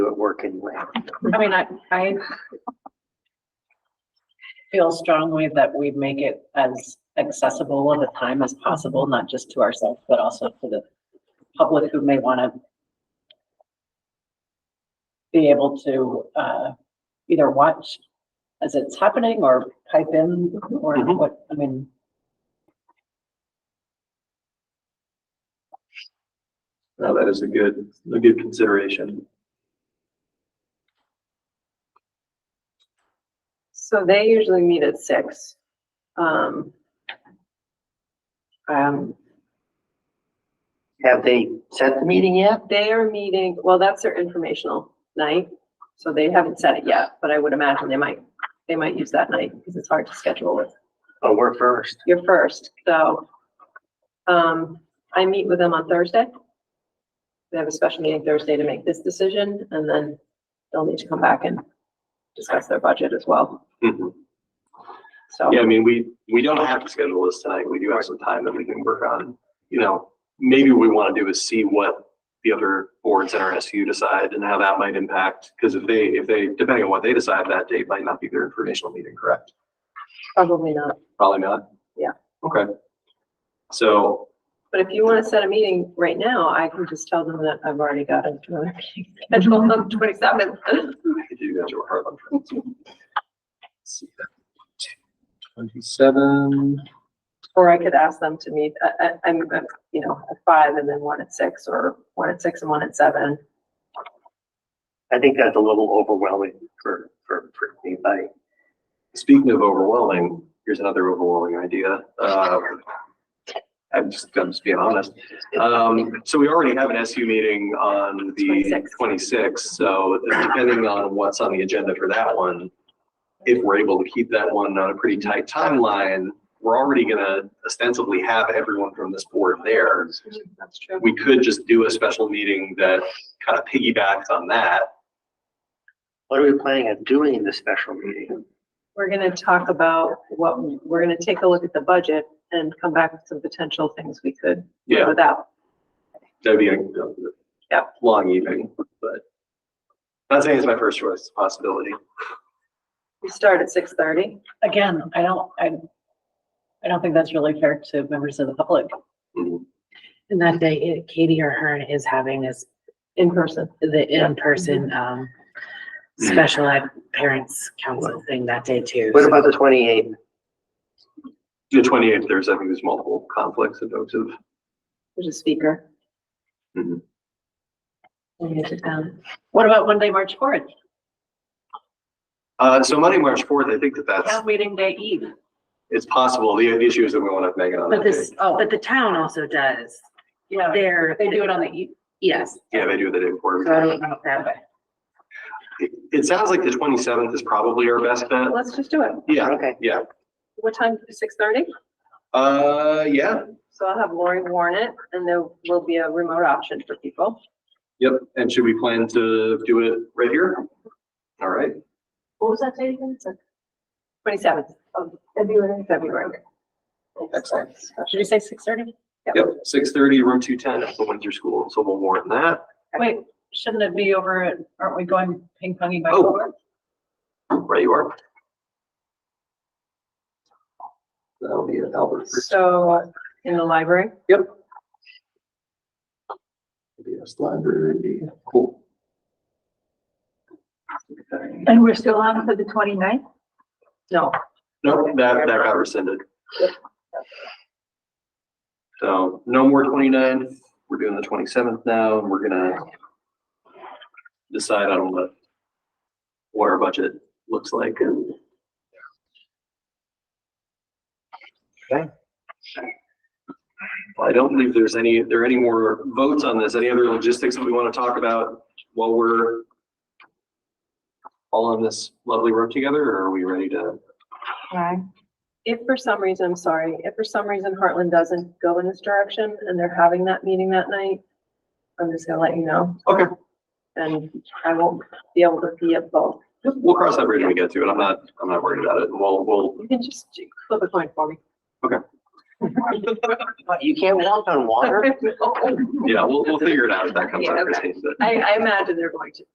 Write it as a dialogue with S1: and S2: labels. S1: work anyway.
S2: I mean, I, I feel strongly that we make it as accessible of a time as possible, not just to ourselves, but also to the public who may want to be able to, uh, either watch as it's happening or type in or
S1: Mhm.
S2: what, I mean,
S3: No, that is a good, a good consideration.
S4: So they usually meet at six. Um, um,
S1: Have they set the meeting yet?
S4: they are meeting, well, that's their informational night, so they haven't said it yet, but I would imagine they might, they might use that night because it's hard to schedule with
S1: Oh, we're first.
S4: your first, so. Um, I meet with them on Thursday. They have a special meeting Thursday to make this decision and then they'll need to come back and discuss their budget as well,
S3: Mhm.
S4: so.
S3: Yeah, I mean, we, we don't have to schedule this tonight. We do have some time that we can work on. You know, maybe what we want to do is see what the other boards in our SU decide and how that might impact. Because if they, if they, depending on what they decide, that date might not be their informational meeting, correct?
S4: Probably not.
S3: Probably not?
S4: Yeah.
S3: Okay. So,
S4: But if you want to set a meeting right now, I can just tell them that I've already got another meeting scheduled on twenty-seventh.
S3: I could do that to our Harlem friends. See that. Twenty-seven.
S4: Or I could ask them to meet, I, I, I'm, uh, you know, at five and then one at six, or one at six and one at seven.
S1: I think that's a little overwhelming for, for, for anybody.
S3: Speaking of overwhelming, here's another overwhelming idea. Uh, I'm just, I'm just being honest. Um, so we already have an SU meeting on the
S4: 26th.
S3: twenty-sixth, so depending on what's on the agenda for that one, if we're able to keep that one on a pretty tight timeline, we're already gonna ostensibly have everyone from this board there.
S4: That's true.
S3: we could just do a special meeting that kind of piggybacks on that.
S1: What are we planning on doing in the special meeting?
S4: We're gonna talk about what, we're gonna take a look at the budget and come back with some potential things we could live
S3: Yeah,
S4: without.
S3: that'd be a
S4: Yeah.
S3: long evening, but not saying it's my first choice, it's a possibility.
S4: We start at six thirty.
S2: again, I don't, I, I don't think that's really fair to members of the public.
S3: Mm-hmm.
S5: And that day, Katie O'Hearn is having this,
S4: In person.
S5: the in-person,
S2: Mm-hmm.
S5: um, special ed parents council thing that day too.
S1: What about the twenty-eighth?
S3: The twenty-eighth, there's, I think there's multiple conflicts and folks have,
S4: There's a speaker.
S3: Mhm.
S4: We need to down.
S2: What about Monday, March fourth,
S3: uh, so Monday, March fourth, I think that that's,
S2: town meeting day eve?
S3: it's possible. The, the issue is that we want to make it on that
S5: But
S3: day.
S5: this, but the town also does.
S2: Oh, Yeah,
S5: They're.
S2: they do it on the e- eve.
S5: Yes.
S3: Yeah, they do the day before.
S5: So I don't know if that,
S3: It, it sounds like the twenty-seventh is probably our best bet.
S4: Let's just do it.
S3: Yeah,
S1: Okay,
S3: yeah.
S4: What time? Six thirty?
S3: Uh, yeah,
S4: So I'll have Lori warn it and there will be a remote option for people.
S3: yep. And should we plan to do it right here? All right.
S6: What was that date again? It's like
S4: Twenty-seventh of
S6: February.
S4: February.
S3: Excellent.
S2: Should we say six thirty?
S3: Yep, six thirty, room two ten, at the Windsor School, so we'll warrant that.
S2: Wait, shouldn't it be over, at- aren't we going ping ponging back
S3: Oh.
S2: over?
S3: Right, you are. That'll be at Albert.
S4: So uh, in the library,
S3: Yep. PBS Library, cool.
S6: And we're still on for the 29th.
S4: no,
S3: No, that, that got rescinded. So no more 29th. we're doing the twenty-seventh now, and we're gonna decide on what, what our budget looks like and Well, I don't believe there's any, there are any more votes on this. Any other logistics that we want to talk about while we're all on this lovely road together, or are we ready to?
S4: if for some reason, I'm sorry, if for some reason Heartland doesn't go in this direction and they're having that meeting that night, I'm just gonna let you know.
S3: Okay.
S4: And I won't be able to be at both.
S3: We'll cross that bridge when we get to it. I'm not, I'm not worried about it. We'll, we'll,
S4: You can just flip a coin for me.
S1: What, you can't walk on water?
S4: I,
S6: Oh,
S3: yeah, we'll, we'll figure it out if that comes
S4: Yeah,
S3: out,
S4: okay.
S3: Christine. but-
S4: I imagine they're going to.